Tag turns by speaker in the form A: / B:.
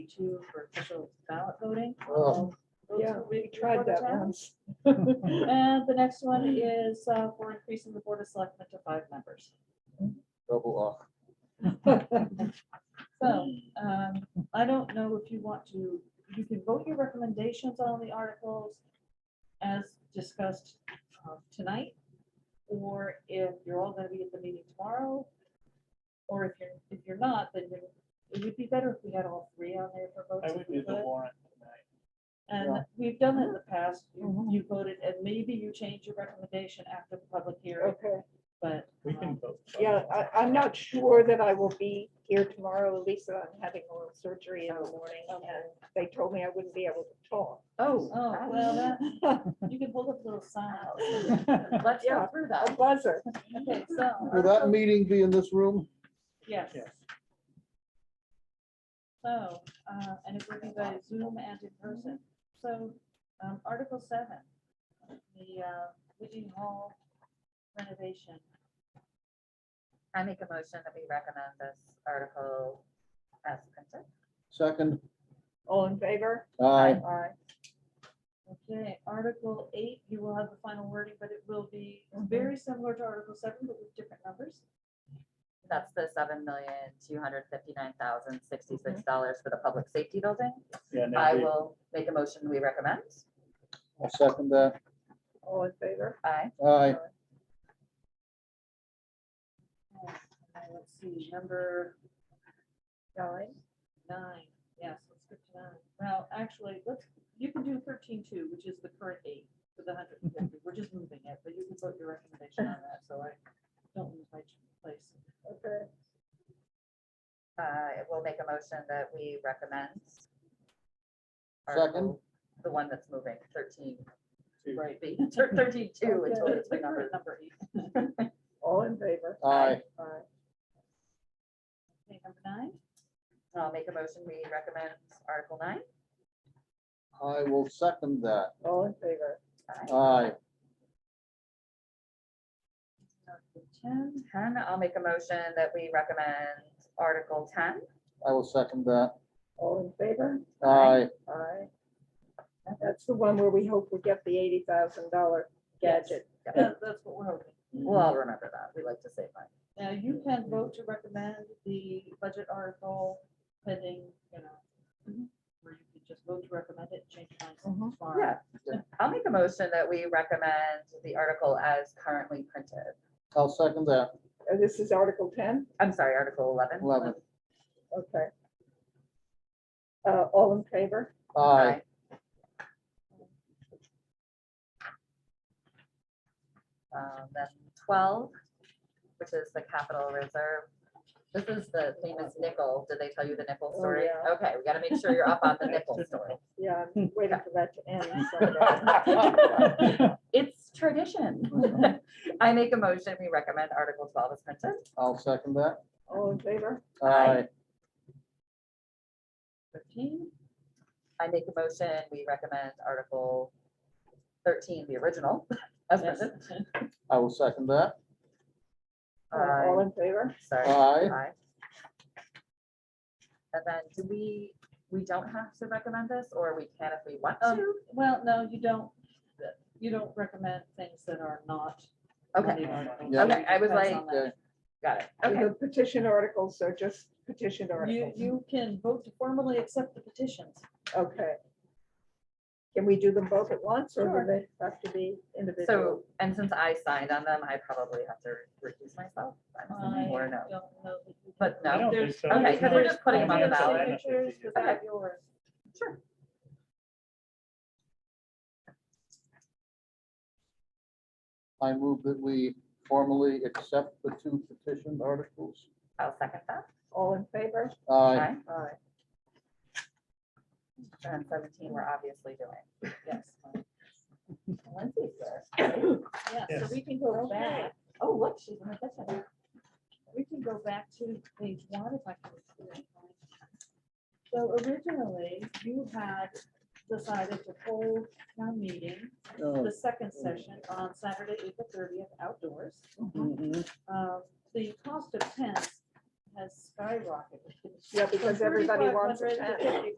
A: forty-two for official ballot voting.
B: Oh.
A: Those
C: Yeah,
A: will be
C: We tried
A: before the
C: that
A: town.
C: once.
A: And the next one is uh, for increasing the board of selectmen to five members.
B: Double off.
A: So um, I don't know if you want to, you can vote your recommendations on the articles as discussed uh, tonight, or if you're all gonna be at the meeting tomorrow, or if you're, if you're not, then you- it would be better if we had all three on there for votes.
D: I
A: if
D: would
A: we
D: do the
A: could.
D: warrant tonight.
A: And
B: Yeah.
A: we've done it in the past. You-
C: Mhm.
A: You voted, and maybe you change your recommendation after the public hearing,
C: Okay,
A: but.
D: We
A: um,
D: can vote.
C: yeah, I, I'm not sure that I will be here tomorrow, Lisa, I'm having oral surgery in the morning, and they told me I wouldn't be able to talk.
E: Oh.
A: Oh, well, that- you can hold up a little sign. Let's go
C: Yeah.
A: through
C: A
A: that.
C: buzzer.
A: Okay, so.
B: Will that
A: Article-
B: meeting be in this room?
A: Yes.
D: Yes.
A: So, uh, and it will be by Zoom and in person. So, um, Article seven, the, uh, Whitney Hall renovation.
E: I make a motion that we recommend this article as printed.
B: Second,
C: All in favor?
B: aye,
C: Aye.
A: Okay, Article eight, you will have the final wording, but it will be very similar to Article seven, but with different numbers.
E: That's the seven million, two hundred fifty-nine thousand, sixty-six dollars for the public safety building.
D: Yeah,
E: I
D: no,
E: will make a motion we recommend.
B: I'll second that,
C: All in favor?
E: Aye.
B: aye,
A: And uh, Let's see, number
C: Nine.
A: Nine, yes, let's skip to nine. Well, actually, let's, you can do thirteen two, which is the current eight for the hundred and fifty. We're just moving it, but you can put your recommendation on that, so I don't lose my place.
C: Okay.
E: I will make a motion that we recommend.
B: Second.
E: article- The one that's moving, thirteen,
D: Two.
E: right, be- thir- thirteen two is
A: But
E: what it's
A: it's the
E: the number.
A: current number eight.
C: All in favor?
B: aye,
C: Aye.
A: Okay, number nine,
E: I'll make a motion, we recommend Article nine.
B: I will second that,
C: All in favor?
E: Aye.
B: aye,
A: Article ten,
E: Ten, I'll make a motion that we recommend Article ten.
B: I will second that,
C: All in favor?
B: aye,
C: Aye. That's the one where we hope we get the eighty thousand dollar gadget.
A: that- that's what we're hoping.
E: We'll all remember that. We like to save money.
A: Now, you can vote to recommend the budget article pending, you know, or you can just vote to recommend it, change your mind
C: Mhm.
A: tomorrow.
E: Yeah. I'll make a motion that we recommend the article as currently printed.
B: I'll second that,
C: Uh, This is Article ten,
E: I'm sorry, Article eleven.
B: eleven,
C: okay. Uh, all in favor?
B: aye,
E: Um, Then twelve, which is the capital reserve. This is the famous nickel. Did they tell you the nickel
C: Oh,
E: story?
C: yeah.
E: Okay, we gotta make sure you're up on the nickel story.
C: Yeah, I'm waiting for that to end. someday.
D: we-
E: It's tradition. I make a motion, we recommend Article twelve is printed.
B: I'll second that,
C: All in favor?
B: aye,
A: Thirteen,
E: I make a motion, we recommend Article thirteen, the original, as
A: yes.
E: printed.
B: I will second that,
C: Uh, All
E: Aye.
C: in favor?
E: Sorry.
B: aye,
E: Aye. And then do we, we don't have to recommend this, or we can if we want
A: Um,
E: to?
A: Well, no, you don't, you don't recommend things that are not.
E: Okay,
A: money articles.
B: Yeah.
E: Okay, I was
A: Depends on
E: like-
A: that.
E: got it. Okay,
C: The petition articles are just petition
A: You,
C: articles.
A: you can vote to formally accept the petitions.
C: Okay. Can we do them both at once or
A: Sure.
C: do they have to be individual?
E: so, and since I signed on them, I probably have to recuse myself. I'm
A: I
E: assuming, Or
A: don't
E: no,
A: know. that you can-
E: but
D: I
E: no.
D: don't think
A: There's-
D: so.
E: okay,
D: There's
E: 'cause
D: no
E: we're just putting 'em on the
D: financial
E: ballot.
D: benefit to
A: Signatures,
D: you.
A: 'cause I have yours.
E: Sure.
B: I move that we formally accept the two petition articles,
E: I'll second that.
C: All in favor?
B: aye,
E: Aye.
C: Aye.
E: And seventeen, we're obviously doing.
A: Yes.
E: Lindsay's there.
A: Yeah, so
D: Yes.
A: we can go
C: Okay.
A: back,
E: Oh, look, she's in the kitchen.
A: we can go back to page one if I can. So originally, you had decided to hold town meeting,
B: Oh,
A: the second session on Saturday, April thirtieth, outdoors.
B: mhm,
A: uh, the cost of tents has skyrocketed.
C: Yeah, because everybody wants a
A: 3,500 to
C: tent.
A: 50